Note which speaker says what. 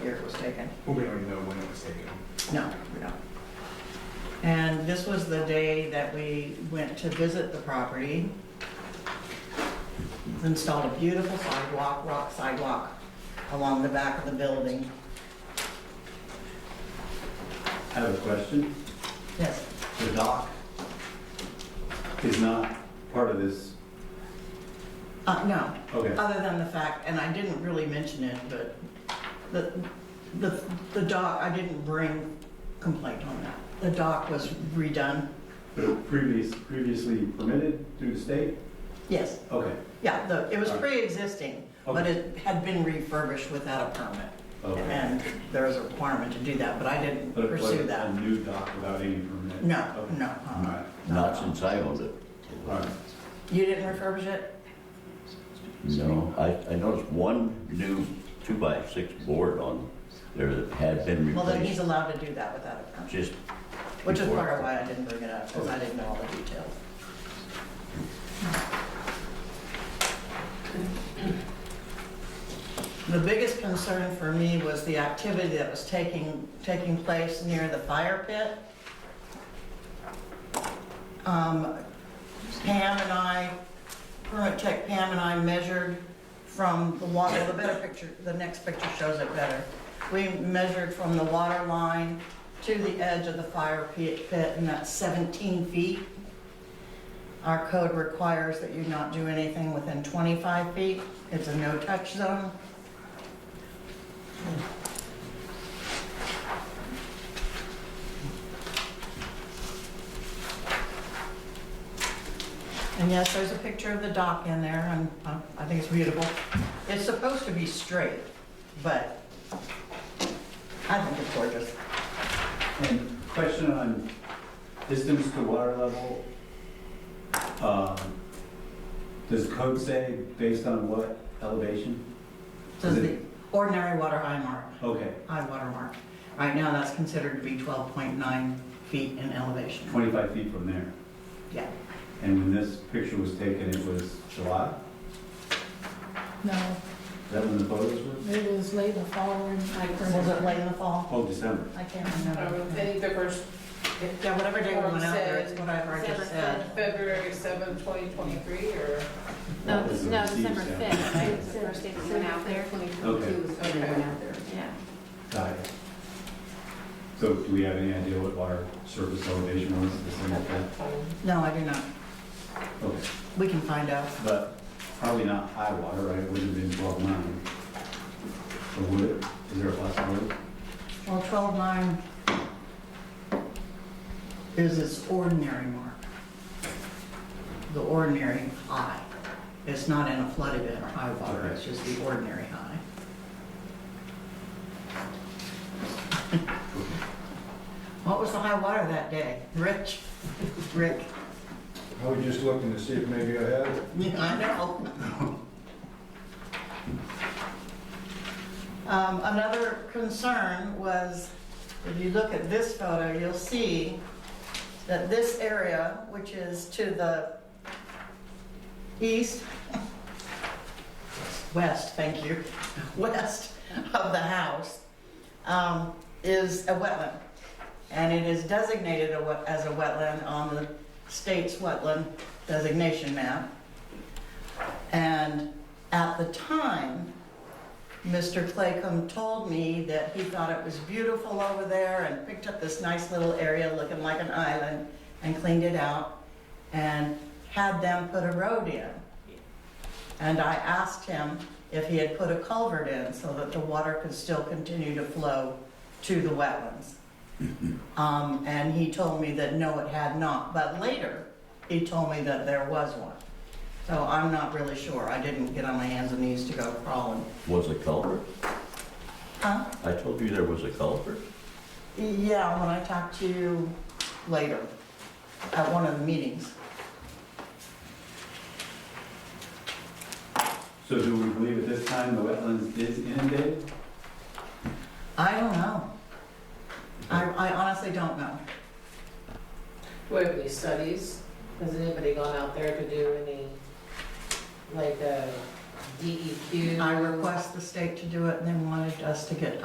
Speaker 1: taken.
Speaker 2: Well, we don't even know when it was taken.
Speaker 1: No, we don't. And this was the day that we went to visit the property. Installed a beautiful sidewalk, rock sidewalk, along the back of the building.
Speaker 3: I have a question.
Speaker 1: Yes,
Speaker 3: The dock is not part of this,
Speaker 1: uh, no,
Speaker 3: okay.
Speaker 1: other than the fact, and I didn't really mention it, but the, the, the dock, I didn't bring complaint on that. The dock was redone,
Speaker 3: But it previous, previously permitted through the state?
Speaker 1: yes,
Speaker 3: Okay,
Speaker 1: yeah, the, it was pre-existing, but
Speaker 3: Okay.
Speaker 1: it had been refurbished without a permit.
Speaker 3: okay.
Speaker 1: And there is a requirement to do that, but I didn't
Speaker 3: But it wasn't
Speaker 1: pursue that.
Speaker 3: A new dock without any permit?
Speaker 1: No,
Speaker 3: Okay.
Speaker 1: no.
Speaker 3: All
Speaker 1: uh-uh.
Speaker 3: right,
Speaker 4: Not since I owned it.
Speaker 3: all right.
Speaker 1: You didn't refurbish it?
Speaker 4: No, I, I noticed one new two-by-six board on there that had been
Speaker 1: Well, then he's
Speaker 4: replaced.
Speaker 1: allowed to do that without a permit,
Speaker 4: Just,
Speaker 1: which is
Speaker 4: before.
Speaker 1: part of why I didn't bring it up, because I didn't know all the details. The biggest concern for me was the activity that was taking, taking place near the fire pit. Um, Pam and I, Permit Tech Pam and I measured from the water, the better picture, the next picture shows it better. We measured from the water line to the edge of the fire pit, pit, and that's 17 feet. Our code requires that you not do anything within 25 feet. It's a no-touch zone. And yes, there's a picture of the dock in there, and uh, I think it's beautiful. It's supposed to be straight, but I think it's gorgeous.
Speaker 3: And question on distance to water level. Um, Does code say based on what elevation?
Speaker 1: This is the ordinary water high mark,
Speaker 3: Okay,
Speaker 1: high water mark. Right now, that's considered to be 12.9 feet in elevation.
Speaker 3: 25 feet from there.
Speaker 1: Yeah.
Speaker 3: And when this picture was taken, it was July?
Speaker 5: No,
Speaker 3: Is that when the photos were?
Speaker 5: it was late in the fall, and I
Speaker 1: Was it
Speaker 5: remember,
Speaker 1: late in the fall?
Speaker 3: Oh, December.
Speaker 5: I can't
Speaker 6: Um, I
Speaker 5: remember.
Speaker 6: think the first,
Speaker 1: Yeah, whatever day we went out there, it's whatever I just said.
Speaker 6: February seventh, twenty twenty-three, or?
Speaker 7: No,
Speaker 3: What was the
Speaker 7: no,
Speaker 3: received
Speaker 7: December
Speaker 3: sound?
Speaker 7: fifth, right, was the first day we went out there,
Speaker 3: Okay.
Speaker 7: yeah.
Speaker 3: Got it. So do we have any idea what water surface elevation was at December fifth?
Speaker 1: No, I do not.
Speaker 3: Okay,
Speaker 1: We can find out.
Speaker 3: but probably not high water, right? It wouldn't have been twelve nine. Or would it? Is there a possibility?
Speaker 1: Well, 12.9 is its ordinary mark. The ordinary high. It's not in a flood event or high water, it's just the ordinary high. What was the high water that day? Rich? Rick?
Speaker 2: I was just looking to see if maybe I had it.
Speaker 1: Yeah, I know. Um, Another concern was, if you look at this photo, you'll see that this area, which is to the east, west, thank you, west of the house, um, is a wetland. And it is designated a wet- as a wetland on the state's wetland designation map. And at the time, Mr. Claycomb told me that he thought it was beautiful over there and picked up this nice little area looking like an island and cleaned it out and had them put a road in. And I asked him if he had put a culvert in so that the water could still continue to flow to the wetlands. Um, and he told me that no, it had not, but later, he told me that there was one. So I'm not really sure, I didn't get on my hands and knees to go crawling.
Speaker 4: was a culvert?
Speaker 1: Huh?
Speaker 4: I told you there was a culvert?
Speaker 1: Yeah, when I talked to you later, at one of the meetings.
Speaker 3: So do we believe at this time the wetlands is inundated?
Speaker 1: I don't know. I, I honestly don't know.
Speaker 6: Do we have any studies? Has anybody gone out there to do any, like, uh, E DEQ?
Speaker 1: I request the state to do it, and they wanted us to get